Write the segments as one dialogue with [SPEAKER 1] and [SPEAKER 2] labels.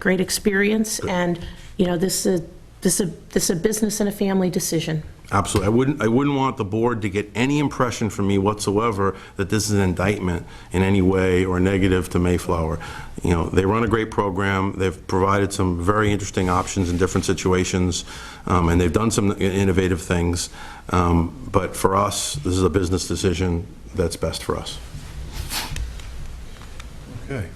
[SPEAKER 1] great experience, and, you know, this is, this is, this is a business and a family decision.
[SPEAKER 2] Absolutely. I wouldn't, I wouldn't want the board to get any impression from me whatsoever that this is an indictment in any way or negative to Mayflower. You know, they run a great program, they've provided some very interesting options in different situations, um, and they've done some innovative things. Um, But for us, this is a business decision that's best for us.
[SPEAKER 3] Okay.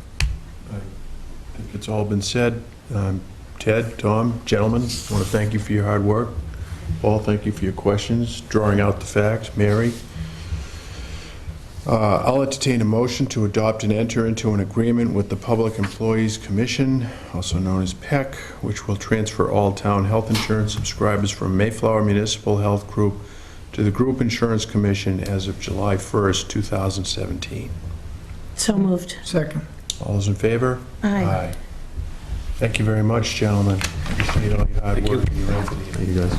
[SPEAKER 3] I think it's all been said. Um, Ted, Tom, gentlemen, I want to thank you for your hard work. Paul, thank you for your questions, drawing out the facts. Mary? Uh, I'll entertain a motion to adopt and enter into an agreement with the Public Employees Commission, also known as PEC, which will transfer all town health insurance subscribers from Mayflower Municipal Health Group to the Group Insurance Commission as of July 1st, 2017.
[SPEAKER 1] So moved.
[SPEAKER 4] Second.
[SPEAKER 3] All those in favor?
[SPEAKER 1] Aye.
[SPEAKER 3] Thank you very much, gentlemen. Appreciate all your hard work and your effort. Thank you, guys.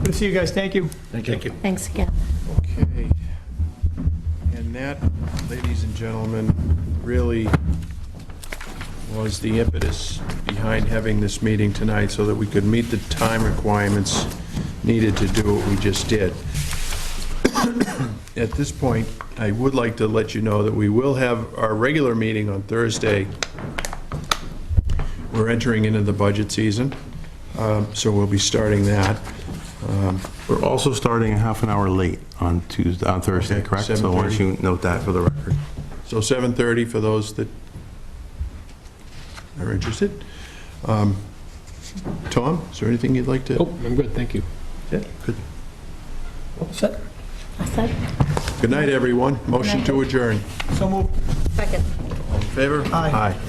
[SPEAKER 4] Good to see you guys, thank you.
[SPEAKER 3] Thank you.
[SPEAKER 1] Thanks again.
[SPEAKER 3] Okay. And that, ladies and gentlemen, really was the impetus behind having this meeting tonight, so that we could meet the time requirements needed to do what we just did. At this point, I would like to let you know that we will have our regular meeting on Thursday. We're entering into the budget season, um, so we'll be starting that. Um,
[SPEAKER 2] We're also starting a half an hour late on Tuesday, on Thursday,
[SPEAKER 3] Okay,
[SPEAKER 2] correct? So why don't
[SPEAKER 3] 7:30.
[SPEAKER 2] you note that for the record?
[SPEAKER 3] So 7:30 for those that are interested. Um, Tom, is there anything you'd like to?
[SPEAKER 5] Nope, I'm good, thank you.
[SPEAKER 3] Yeah, Good
[SPEAKER 4] Set.
[SPEAKER 3] Good night, everyone. Motion to adjourn.
[SPEAKER 4] So moved.
[SPEAKER 3] All in favor? Aye.